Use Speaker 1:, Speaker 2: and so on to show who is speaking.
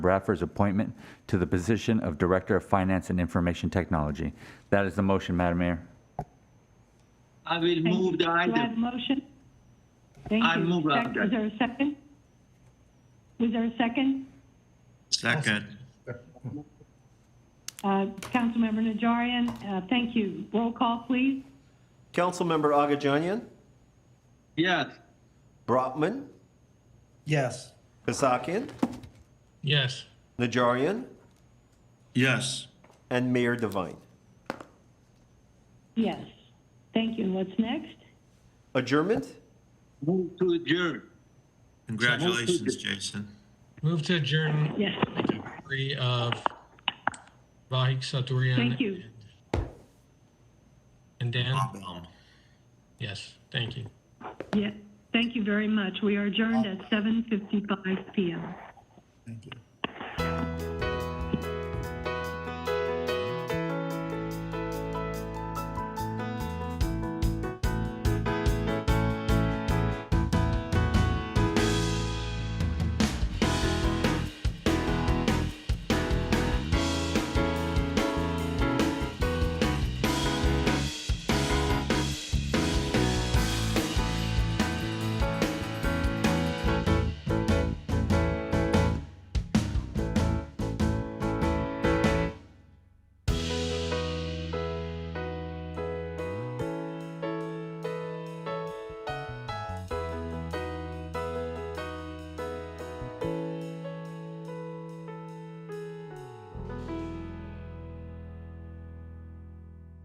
Speaker 1: Bradford's appointment to the position of Director of Finance and Information Technology. That is the motion, Madam Mayor.
Speaker 2: I will
Speaker 3: Thank you.
Speaker 2: move the
Speaker 3: Do I have a
Speaker 2: item.
Speaker 3: motion? Thank
Speaker 2: I
Speaker 3: you.
Speaker 2: move the
Speaker 3: Sec-
Speaker 2: item.
Speaker 3: Was there a second? Was there a second?
Speaker 2: Second.
Speaker 3: Uh, Councilmember Najarian, uh, thank you. Roll call, please.
Speaker 4: Councilmember Agajanian,
Speaker 2: Yes.
Speaker 4: Brotman,
Speaker 5: Yes.
Speaker 4: Kasakian,
Speaker 6: Yes.
Speaker 4: Najarian,
Speaker 6: Yes.
Speaker 4: and Mayor Devine.
Speaker 3: Yes. Thank you. And what's next?
Speaker 4: Adjournment?
Speaker 2: Move to adjourn.
Speaker 7: Congratulations, Jason.
Speaker 6: Move to adjourn
Speaker 3: Yes.
Speaker 6: three of Vahik Saturian.
Speaker 3: Thank you.
Speaker 6: And Dan?
Speaker 7: Um,
Speaker 6: Yes, thank you.
Speaker 3: Yes. Thank you very much. We are adjourned at 7:55 PM.
Speaker 5: Thank you.